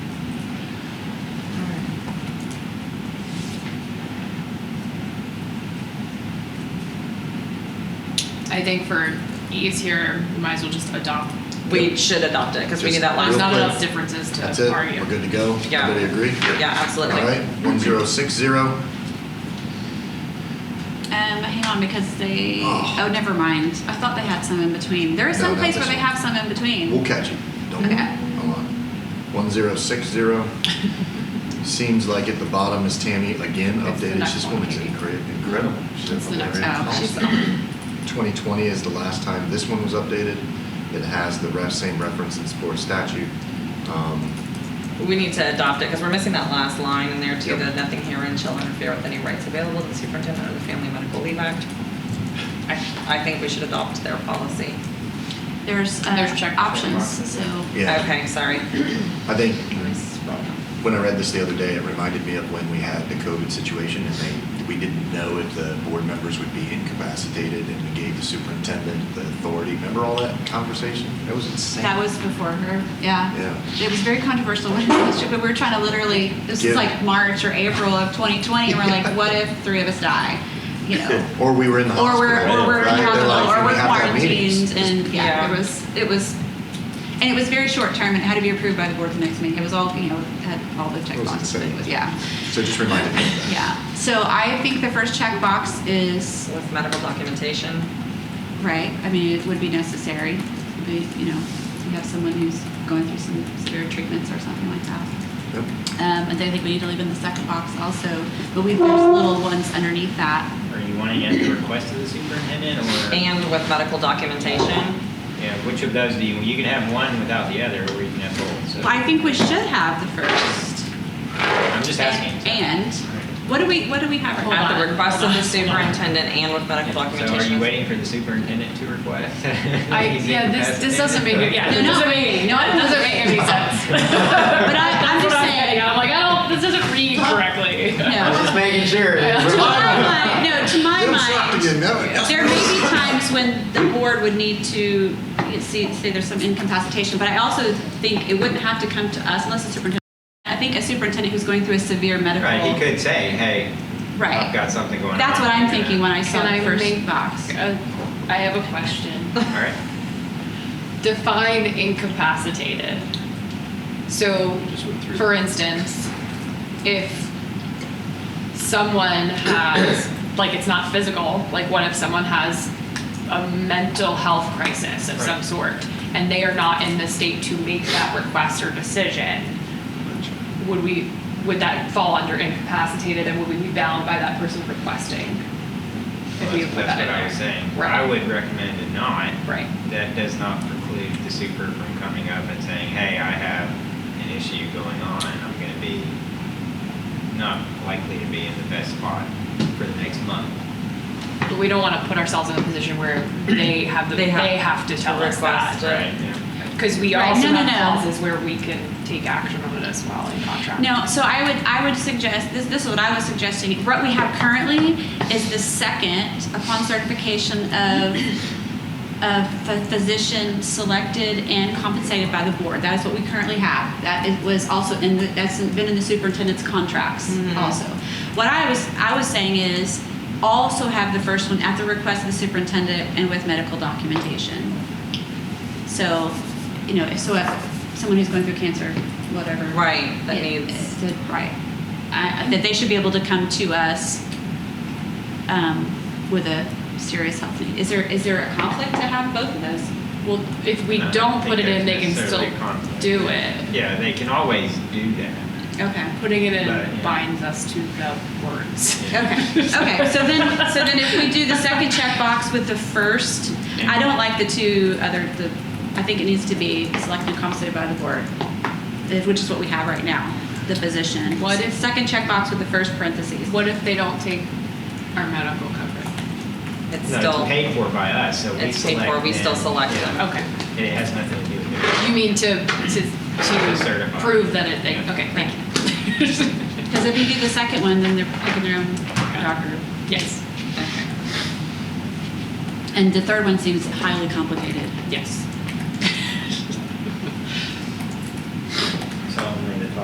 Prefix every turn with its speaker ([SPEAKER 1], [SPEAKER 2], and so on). [SPEAKER 1] I think for ease here, we might as well just adopt.
[SPEAKER 2] We should adopt it because we need that
[SPEAKER 1] There's
[SPEAKER 2] last
[SPEAKER 1] not
[SPEAKER 2] one.
[SPEAKER 1] enough differences to
[SPEAKER 3] That's it,
[SPEAKER 1] argue.
[SPEAKER 3] we're good to go.
[SPEAKER 2] Yeah.
[SPEAKER 3] Everybody agree?
[SPEAKER 2] Yeah, absolutely.
[SPEAKER 3] All right, one zero six zero.
[SPEAKER 4] Um, hang on, because they.
[SPEAKER 3] Oh.
[SPEAKER 4] Oh. never mind. I thought they had some in between. There is
[SPEAKER 3] No,
[SPEAKER 4] some
[SPEAKER 3] not
[SPEAKER 4] place
[SPEAKER 3] this
[SPEAKER 4] where they
[SPEAKER 3] one.
[SPEAKER 4] have some in between.
[SPEAKER 3] We'll catch it. Don't worry.
[SPEAKER 4] Okay.
[SPEAKER 3] Hold on. One zero six zero. Seems like at the bottom is Tammy again
[SPEAKER 1] It's the
[SPEAKER 3] updated.
[SPEAKER 1] next
[SPEAKER 3] She's
[SPEAKER 1] one,
[SPEAKER 3] woman's
[SPEAKER 1] maybe.
[SPEAKER 3] incre- incredible.
[SPEAKER 1] It's the next one. She's
[SPEAKER 3] Twenty twenty is the last time this one was updated. It has the ref, same reference in sports statute. Um,
[SPEAKER 2] We need to adopt it because we're missing that last line in there too,
[SPEAKER 3] Yep.
[SPEAKER 2] that nothing herein shall interfere with any rights available to the superintendent of the Family Medical Leave Act. I, I think we should adopt their policy.
[SPEAKER 4] There's, uh,
[SPEAKER 1] There's check
[SPEAKER 4] options,
[SPEAKER 1] marks.
[SPEAKER 4] so.
[SPEAKER 3] yeah,
[SPEAKER 2] Okay, sorry.
[SPEAKER 3] I think
[SPEAKER 2] Can I scroll down?
[SPEAKER 3] When I read this the other day, it reminded me of when we had the COVID situation and they, we didn't know if the board members would be incapacitated and we gave the superintendent the authority. Remember all that conversation? That was insane.
[SPEAKER 4] That was before her, yeah.
[SPEAKER 3] Yeah.
[SPEAKER 4] It was very controversial when it was, but we were trying to literally, this
[SPEAKER 3] Give-
[SPEAKER 4] was like March or April of 2020, and we're like, what if three of us die? You know?
[SPEAKER 3] Or we were in the
[SPEAKER 4] Or
[SPEAKER 3] hospital.
[SPEAKER 4] we're, or we're in
[SPEAKER 3] right?
[SPEAKER 4] the
[SPEAKER 3] They're like,
[SPEAKER 4] hospital, or
[SPEAKER 3] "We
[SPEAKER 4] we're
[SPEAKER 3] have to have meetings."
[SPEAKER 4] quarantined, and
[SPEAKER 2] Yeah.
[SPEAKER 4] yeah, it was, it was, and it was very short term, and it had to be approved by the board the next meeting. It was all, you know, had all the check
[SPEAKER 3] It was
[SPEAKER 4] boxes, but it
[SPEAKER 3] insane.
[SPEAKER 4] was, yeah,
[SPEAKER 3] So it just reminded me of that.
[SPEAKER 4] yeah. So I think the first check box is
[SPEAKER 2] With medical documentation.
[SPEAKER 4] Right, I mean, it would be necessary, but, you know, if you have someone who's going through some severe treatments or something like that.
[SPEAKER 3] Yep.
[SPEAKER 4] Um, and then I think we need to leave in the second box also, but we, there's little ones underneath that.
[SPEAKER 5] Are you wanting at the request of the superintendent or?
[SPEAKER 2] And with medical documentation.
[SPEAKER 5] Yeah, which of those do you, you can have one without the other, or you can have both, so.
[SPEAKER 4] I think we should have the first.
[SPEAKER 5] I'm just asking.
[SPEAKER 4] And, what do we, what do we have?
[SPEAKER 1] Hold
[SPEAKER 2] At the
[SPEAKER 1] on,
[SPEAKER 2] request of
[SPEAKER 1] hold on, hold
[SPEAKER 2] the
[SPEAKER 1] on.
[SPEAKER 2] superintendent and with medical
[SPEAKER 5] So
[SPEAKER 2] documentation.
[SPEAKER 5] are you waiting for the superintendent to request?
[SPEAKER 1] I, yeah, this, this doesn't make, yeah,
[SPEAKER 4] No,
[SPEAKER 1] this
[SPEAKER 4] no.
[SPEAKER 1] doesn't make, no, it doesn't make any sense. But
[SPEAKER 4] But I, I'm
[SPEAKER 1] That's what
[SPEAKER 4] just
[SPEAKER 1] I'm getting at.
[SPEAKER 4] saying,
[SPEAKER 1] I'm like, oh, this doesn't read correctly.
[SPEAKER 4] no.
[SPEAKER 5] just making sure.
[SPEAKER 4] To my mind, no, to my
[SPEAKER 3] Don't stop
[SPEAKER 4] mind,
[SPEAKER 3] again, no, no.
[SPEAKER 4] There may be times when the board would need to you know, see, say there's some incapacitation, but I also think it wouldn't have to come to us unless the superintendent. I think a superintendent who's going through a severe medical.
[SPEAKER 5] Right, he could say, hey,
[SPEAKER 4] Right.
[SPEAKER 5] I've got something going on.
[SPEAKER 4] That's what I'm thinking when I saw
[SPEAKER 1] Can
[SPEAKER 4] the
[SPEAKER 1] I
[SPEAKER 4] first
[SPEAKER 1] make-
[SPEAKER 4] box.
[SPEAKER 1] Uh, I have a question.
[SPEAKER 5] All right.
[SPEAKER 1] Define incapacitated. So, for instance, if someone has, like, it's not physical, like, what if someone has a mental health crisis of some
[SPEAKER 5] Right.
[SPEAKER 1] sort and they are not in the state to make that request or decision? Would we, would that fall under incapacitated and would we be bound by that person requesting? If
[SPEAKER 5] Well,
[SPEAKER 1] we
[SPEAKER 5] That's
[SPEAKER 1] put
[SPEAKER 5] that's
[SPEAKER 1] that in
[SPEAKER 5] what I was
[SPEAKER 1] there?
[SPEAKER 5] saying.
[SPEAKER 1] Right.
[SPEAKER 5] I would recommend it not.
[SPEAKER 1] Right.
[SPEAKER 5] That does not preclude the super from coming up and saying, hey, I have an issue going on. I'm going to be not likely to be in the best spot for the next month.
[SPEAKER 1] But we don't want to put ourselves in a position where they have the,
[SPEAKER 2] They
[SPEAKER 1] they
[SPEAKER 2] have
[SPEAKER 1] have, to tell us
[SPEAKER 2] request
[SPEAKER 1] that.
[SPEAKER 5] Yeah.
[SPEAKER 1] Because we
[SPEAKER 4] Right,
[SPEAKER 1] also
[SPEAKER 4] no, no,
[SPEAKER 1] have
[SPEAKER 4] no.
[SPEAKER 1] clauses where we can take action on it as well in contract.
[SPEAKER 4] No, so I would, I would suggest, this, this is what I was suggesting. What we have currently is the second upon certification of, of a physician selected and compensated by the board. That is what we currently have. That it was also in the, that's been in the superintendent's contracts also. What I was, I was saying is also have the first one at the request of the superintendent and with medical documentation. So, you know, so if someone who's going through cancer, whatever.
[SPEAKER 2] Right, that
[SPEAKER 4] it-
[SPEAKER 2] needs-
[SPEAKER 4] it's the- Right. I- I- That they should be able to come to us um, with a serious health need. Is there, is there a conflict to have both of those?
[SPEAKER 1] Well, if we
[SPEAKER 5] No, I
[SPEAKER 1] don't
[SPEAKER 5] think
[SPEAKER 1] put it in, they can
[SPEAKER 5] there's
[SPEAKER 1] still
[SPEAKER 5] necessarily conflict.
[SPEAKER 1] do it.
[SPEAKER 5] Yeah, they can always do that.
[SPEAKER 4] Okay.
[SPEAKER 1] Putting it in
[SPEAKER 5] But, yeah.
[SPEAKER 1] binds us to the words.
[SPEAKER 4] Okay, okay, so then, so then if we do the second checkbox with the first, I don't like the two other, the, I think it needs to be selected and compensated by the board, eh, which is what we have right now, the position.
[SPEAKER 1] What if-
[SPEAKER 4] Second checkbox with the first parentheses.
[SPEAKER 1] What if they don't take our medical coverage?
[SPEAKER 2] It's
[SPEAKER 5] No,
[SPEAKER 2] still,
[SPEAKER 5] it's paid for by us, so we
[SPEAKER 2] it's paid
[SPEAKER 5] select
[SPEAKER 2] for, we still
[SPEAKER 5] them.
[SPEAKER 2] select
[SPEAKER 5] Yeah.
[SPEAKER 2] them.
[SPEAKER 1] Okay.
[SPEAKER 5] And It has nothing to do with it.
[SPEAKER 1] You mean to, to, to
[SPEAKER 5] certify.
[SPEAKER 1] prove that it, they,
[SPEAKER 5] Yeah.
[SPEAKER 1] okay, thank you.
[SPEAKER 4] Because if you do the second one, then they're picking their own doctor.
[SPEAKER 1] Yes,
[SPEAKER 4] And the third one seems highly complicated.
[SPEAKER 1] yes.